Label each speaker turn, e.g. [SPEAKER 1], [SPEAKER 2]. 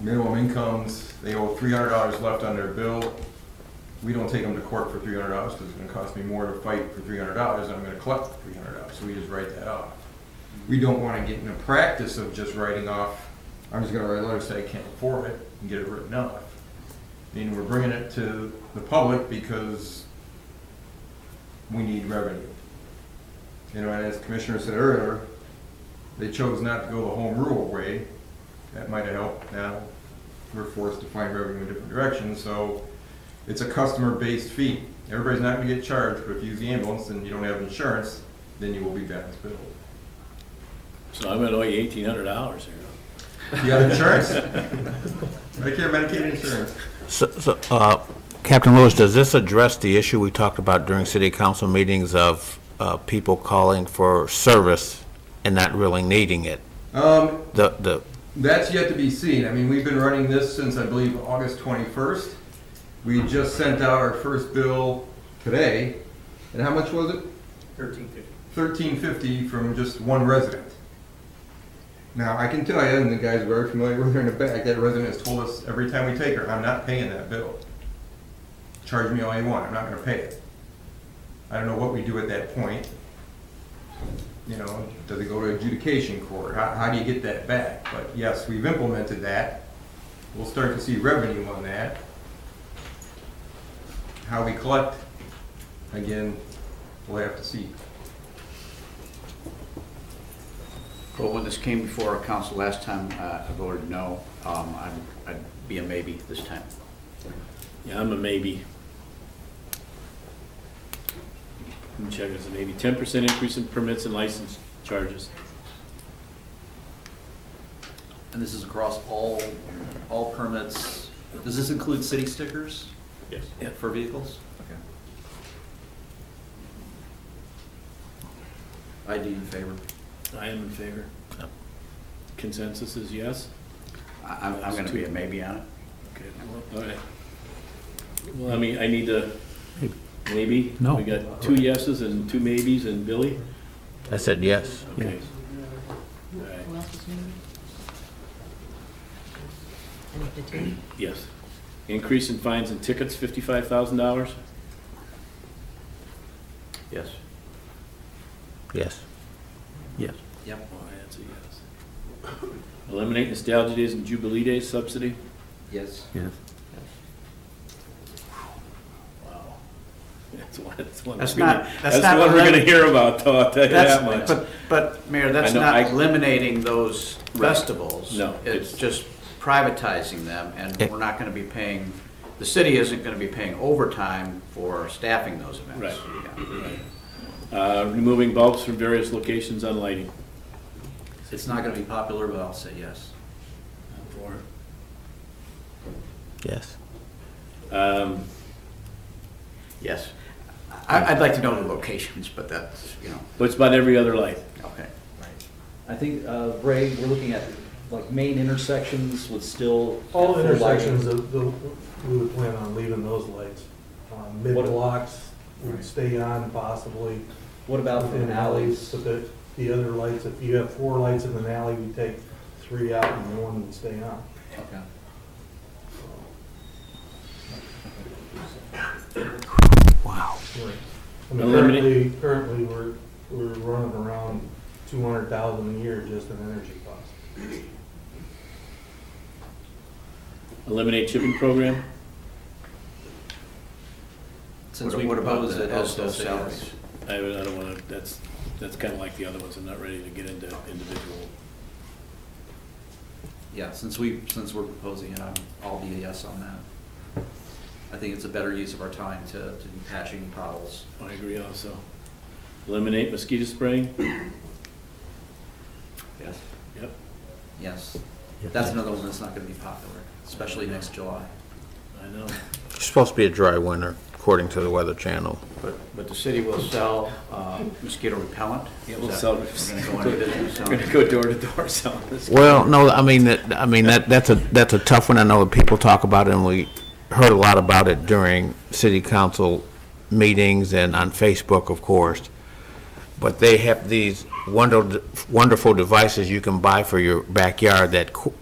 [SPEAKER 1] minimum incomes, they owe three hundred dollars left on their bill. We don't take them to court for three hundred dollars, because it's gonna cost me more to fight for three hundred dollars, than I'm gonna collect three hundred dollars, so we just write that off. We don't wanna get in the practice of just writing off, I'm just gonna write a letter, say I can't afford it, and get it written off. Meaning we're bringing it to the public because we need revenue. You know, and as Commissioner said earlier, they chose not to go the home rule way, that might have helped. Now, we're forced to find revenue in different directions, so it's a customer-based fee. Everybody's not gonna get charged, but if you use the ambulance and you don't have insurance, then you will be balance billed.
[SPEAKER 2] So I'm gonna owe you eighteen hundred dollars here.
[SPEAKER 1] You got insurance? Medicare, Medicaid insurance.
[SPEAKER 3] So- So, uh, Captain Lewis, does this address the issue we talked about during city council meetings of uh, people calling for service and not really needing it?
[SPEAKER 1] Um,
[SPEAKER 3] The, the,
[SPEAKER 1] That's yet to be seen. I mean, we've been running this since, I believe, August 21st. We just sent out our first bill today, and how much was it? 1350 from just one resident. Now, I can tell you, and the guys are very familiar with her in the back, that resident has told us every time we take her, I'm not paying that bill. Charge me all you want, I'm not gonna pay it. I don't know what we do at that point. You know, does it go to adjudication court? How, how do you get that back? But yes, we've implemented that. We'll start to see revenue on that. How we collect, again, we'll have to see.
[SPEAKER 4] Well, when this came before our council last time, uh, I voted no. Um, I'd, I'd be a maybe this time.
[SPEAKER 2] Yeah, I'm a maybe. Let me check this, maybe ten percent increase in permits and license charges.
[SPEAKER 5] And this is across all, all permits. Does this include city stickers
[SPEAKER 2] Yes.
[SPEAKER 5] for vehicles? I'd be in favor.
[SPEAKER 2] I am in favor. Consensus is yes?
[SPEAKER 4] I, I'm, I'm gonna be a maybe on it.
[SPEAKER 2] Okay. All right. Well, I mean, I need to, maybe?
[SPEAKER 6] No.
[SPEAKER 2] We got two yeses and two maybes and Billy?
[SPEAKER 3] I said yes.
[SPEAKER 2] Okay. All right.
[SPEAKER 7] Who else is new? I need to take.
[SPEAKER 2] Yes. Increase in fines and tickets, fifty-five thousand dollars?
[SPEAKER 4] Yes.
[SPEAKER 3] Yes.
[SPEAKER 6] Yes.
[SPEAKER 2] Yep. That's a yes. Eliminate nostalgia days and jubilee days subsidy?
[SPEAKER 4] Yes.
[SPEAKER 6] Yes.
[SPEAKER 2] Wow. That's one, that's one.
[SPEAKER 4] That's
[SPEAKER 2] we're gonna-
[SPEAKER 4] not- that's not
[SPEAKER 2] one we're gonna
[SPEAKER 4] elimin-
[SPEAKER 2] hear about, though, I'll tell you that
[SPEAKER 4] That's,
[SPEAKER 2] much.
[SPEAKER 4] but, but Mayor, that's
[SPEAKER 2] I know,
[SPEAKER 4] not
[SPEAKER 2] I-
[SPEAKER 4] eliminating those
[SPEAKER 2] Right.
[SPEAKER 4] festivals.
[SPEAKER 2] No,
[SPEAKER 4] It's
[SPEAKER 2] it's-
[SPEAKER 4] just privatizing them and
[SPEAKER 3] Yeah.
[SPEAKER 4] we're not gonna be paying, the city isn't gonna be paying overtime for staffing those events. Yeah.
[SPEAKER 2] Uh, removing bulbs from various locations on lighting.
[SPEAKER 5] It's not gonna be popular, but I'll say yes.
[SPEAKER 3] Yes.
[SPEAKER 2] Um,
[SPEAKER 4] Yes. I, I'd like to know the locations, but that's, you know,
[SPEAKER 2] but it's about every other light.
[SPEAKER 4] okay.
[SPEAKER 8] I think, uh, Ray, we're looking at like main intersections with still. full
[SPEAKER 9] All
[SPEAKER 8] lighting.
[SPEAKER 9] intersections, the- the- we would plan on leaving those lights. Um, Mid-blocks would stay on possibly
[SPEAKER 8] What about
[SPEAKER 9] within
[SPEAKER 8] from
[SPEAKER 9] alleys,
[SPEAKER 8] alleys?
[SPEAKER 9] but the, the other lights, if you have four lights in an alley, we take three out and one would stay on.
[SPEAKER 5] Okay.
[SPEAKER 9] I mean, currently,
[SPEAKER 2] Eliminate-
[SPEAKER 9] currently, we're, we're running around two hundred thousand a year just in energy costs.
[SPEAKER 2] Eliminate chipping program?
[SPEAKER 5] Since
[SPEAKER 4] What-
[SPEAKER 5] we
[SPEAKER 4] what about
[SPEAKER 5] proposed
[SPEAKER 4] the-
[SPEAKER 5] it, I'll still
[SPEAKER 4] those
[SPEAKER 5] say
[SPEAKER 4] salaries?
[SPEAKER 5] yes.
[SPEAKER 2] I, I don't wanna, that's, that's kinda like the other ones, I'm not ready to get into individual.
[SPEAKER 5] Yeah, since we, since we're proposing it, I'm, I'll be a yes on that. I think it's a better use of our time to, to be patching potholes.
[SPEAKER 2] I agree also. Eliminate mosquito spraying?
[SPEAKER 5] Yes.
[SPEAKER 2] Yep.
[SPEAKER 5] Yes. That's another one that's not gonna be popular, especially next July.
[SPEAKER 2] I know.
[SPEAKER 3] It's supposed to be a dry winter, according to the Weather Channel.
[SPEAKER 4] But, but the city will sell uh, mosquito repellent?
[SPEAKER 2] Yeah,
[SPEAKER 4] Is
[SPEAKER 2] we'll
[SPEAKER 4] that-
[SPEAKER 2] sell-
[SPEAKER 4] We're gonna go into business
[SPEAKER 2] We're gonna
[SPEAKER 4] selling-
[SPEAKER 2] go door to door selling this.
[SPEAKER 3] Well, no, I mean, that, I mean, that, that's a, that's a tough one. I know that people talk about it, and we heard a lot about it during city council meetings and on Facebook, of course. But they have these wonderful, wonderful devices you can buy for your backyard that, co-